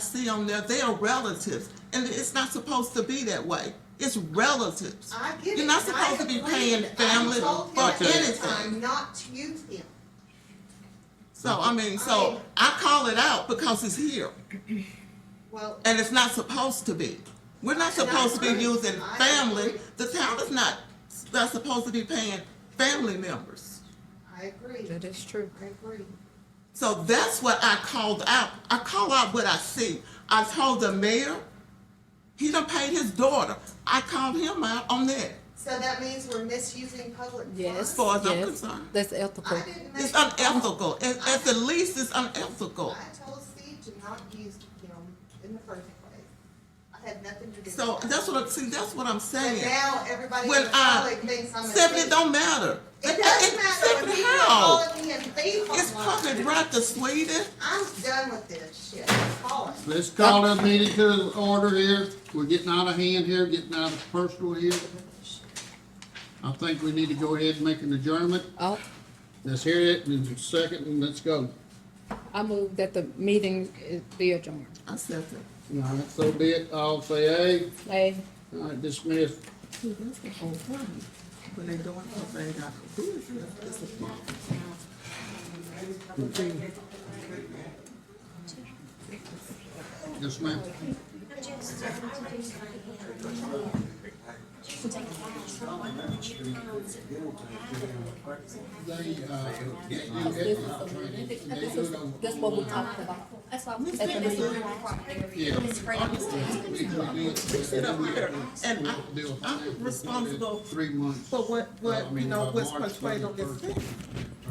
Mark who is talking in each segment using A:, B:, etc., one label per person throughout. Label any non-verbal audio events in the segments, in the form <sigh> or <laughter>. A: see on there, they are relatives, and it's not supposed to be that way. It's relatives.
B: I get it.
A: You're not
B: and I
A: supposed to be
B: agree.
A: paying
B: I
A: family
B: told him
A: for
B: at the
A: anything.
B: time Not to use him.
A: So I mean, so I call it out because it's here,
B: Well,
A: and it's not supposed to be. We're not
B: And I
A: supposed to be
B: agree.
A: using
B: I
A: family.
B: agree.
A: The town is not not supposed to be paying family members.
B: I agree.
C: That is true.
B: I agree.
A: So that's what I called out. I call out what I see. I told the mayor, he done paid his daughter. I called him out on that.
B: So that means we're misusing public funds?
C: Yes.
A: As far as I'm
C: yes.
A: concerned.
C: That's ethical.
B: I didn't make.
A: It's unethical. At, at the least, it's unethical.
B: I told Steve to not use him in the first place. I had nothing to do with
A: So
B: that.
A: that's what I'm, see, that's what I'm
B: But
A: saying.
B: now everybody in
A: When
B: the
A: I-
B: public thinks I'm a.
A: Stephanie,
B: thief.
A: don't matter.
B: It doesn't matter
A: Stephanie,
B: when people are
A: how?
B: calling me a thief
A: It's
B: online.
A: public right to Sweden.
B: I'm done with this shit. Call it.
D: Let's call this meeting to order here. We're getting out of hand here, getting out of personal here. I think we need to go ahead and make an adjournment.
C: Oh,
D: Let's hear it in a second and let's go.
C: I move that the meeting is- be adjourned.
A: I said that.
D: All right, so be it. All say aye.
C: Aye.
D: All right, dismiss.
A: See, that's the whole problem. When they doing something, they got to do it. It's a problem.
D: Yes, ma'am. They, uh, get you ethical training. They do it over-
C: That's what we talked about.
E: That's why I'm at the meeting.
D: Yeah.
E: It's free.
D: We, we do it.
A: Sit up here, and I,
D: Deal.
A: I'm responsible
D: Three months.
A: for what, what, you know, what's portrayed on this thing.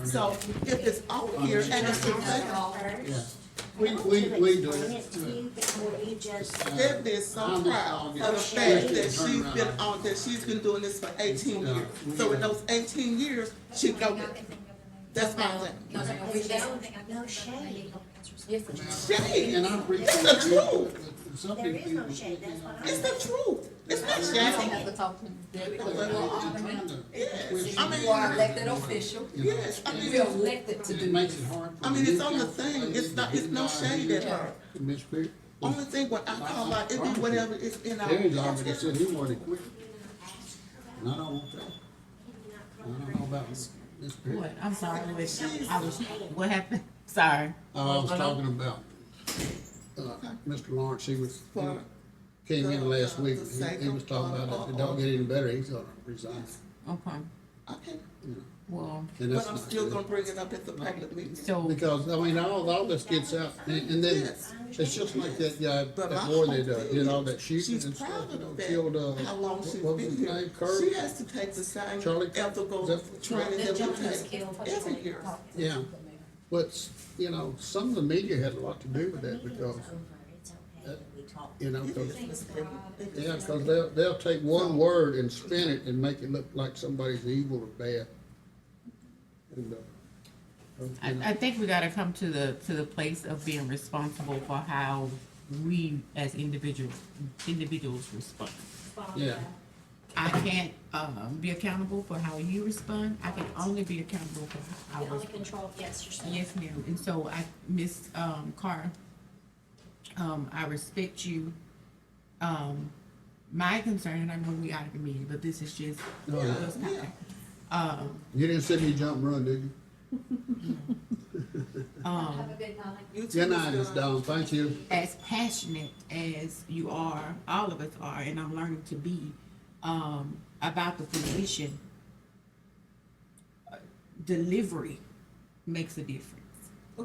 A: So if it's out here and it's presented,
D: Yeah. We, we, we do it.
A: Stephanie is so proud of the fact that she's been on, that she's been doing this for eighteen years. So in those eighteen years, she go with it. That's my thing.
E: No shade.
C: Yes, it is.
A: Shade,
D: And I appreciate.
A: It's the truth.
D: Some
E: There is
D: people-
E: no shade, that's what
A: it's the truth. It's not
C: You don't
A: shade.
C: have to talk to me.
A: Yes,
C: You
A: I
C: are
A: mean,
C: elected official.
A: yes, I
C: You are
A: mean,
C: elected to
D: It
C: do.
D: makes it hard. for
A: I mean, it's
D: me.
A: on the thing. It's not, it's no shade at Oh, her.
D: Miss Perry.
A: Only thing when I call out, it be whatever is in our.
D: Terry's already said he wanted to quit. And I don't want that. I don't know about Miss Perry.
F: What? I'm sorry, Louis. I was, what happened? Sorry.
D: Oh, I was talking about, uh, Mr. Lawrence, he was, he
A: For-
D: came in last
A: the-
D: week,
A: the
D: he,
A: sake
D: he
A: of-
D: was talking about if it don't get any better, he's gonna resign.
F: Okay.
A: Okay,
F: Well,
D: And
A: but
D: that's
A: I'm
D: not
A: still gonna
D: good.
A: bring it up at the public meeting.
F: so
D: Because, I mean, all, all this gets out, and, and then,
A: Yes.
D: it's just like that guy,
A: But my
D: that boy that,
A: whole
D: uh,
A: thing
D: did
A: is
D: all that shooting
A: She's
D: and stuff,
A: proud
D: you know,
A: of
D: killed, uh,
A: that, how long she's
D: what was
A: been
D: his
A: here.
D: name, Kirk?
A: She has to take the same
D: Charlie Kirk?
A: ethical
D: Is that-
A: training
E: The
A: that
E: gentleman was
A: we take
E: killed.
A: every year.
D: Oh, Yeah, but, you know, some of the media had a lot to do with that because, you know, 'cause- yeah, because they'll, they'll take one word and spin it and make it look like somebody's evil or bad. And, uh,
F: I,
D: you know,
F: I think we gotta come to the, to the place of being responsible for how we as individuals, individuals respond.
D: Yeah,
F: I can't, um, be accountable for how you respond. I can only be accountable for how I
E: The only
F: respond.
E: control, yes, yourself.
F: Yes, ma'am, and so I, Miss um, Carr, um, I respect you. Um, my concern, and I know we out of the meeting, but this is just.
D: Oh, yeah.
F: just kind of- Um,
D: you didn't see me jump and run, did you?
F: um,
A: You two
D: Good night,
A: is
D: Miss
A: done.
D: Dawn, thank you.
F: as passionate as you are, all of us are, and I'm learning to be, um, about the position, uh, delivery makes a difference.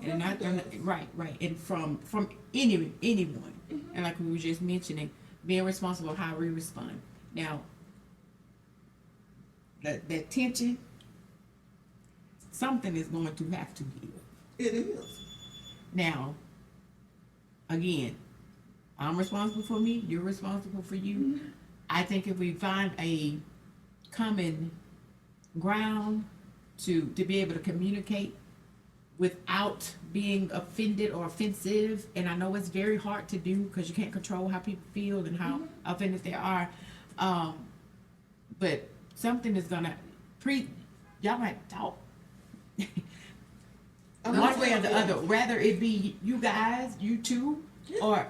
F: And not gonna, right, right, and from, from any, anyone, and like we were just mentioning, being responsible how we respond. Now, that, that tension, something is going to have to give.
A: It is.
F: Now, again, I'm responsible for me, you're responsible for you. I think if we find a common ground to, to be able to communicate without being offended or offensive, and I know it's very hard to do because you can't control how people feel and how offended they are. Um, but something is gonna pre, y'all might talk <laughs> one way or the other, rather it be you guys, you two, or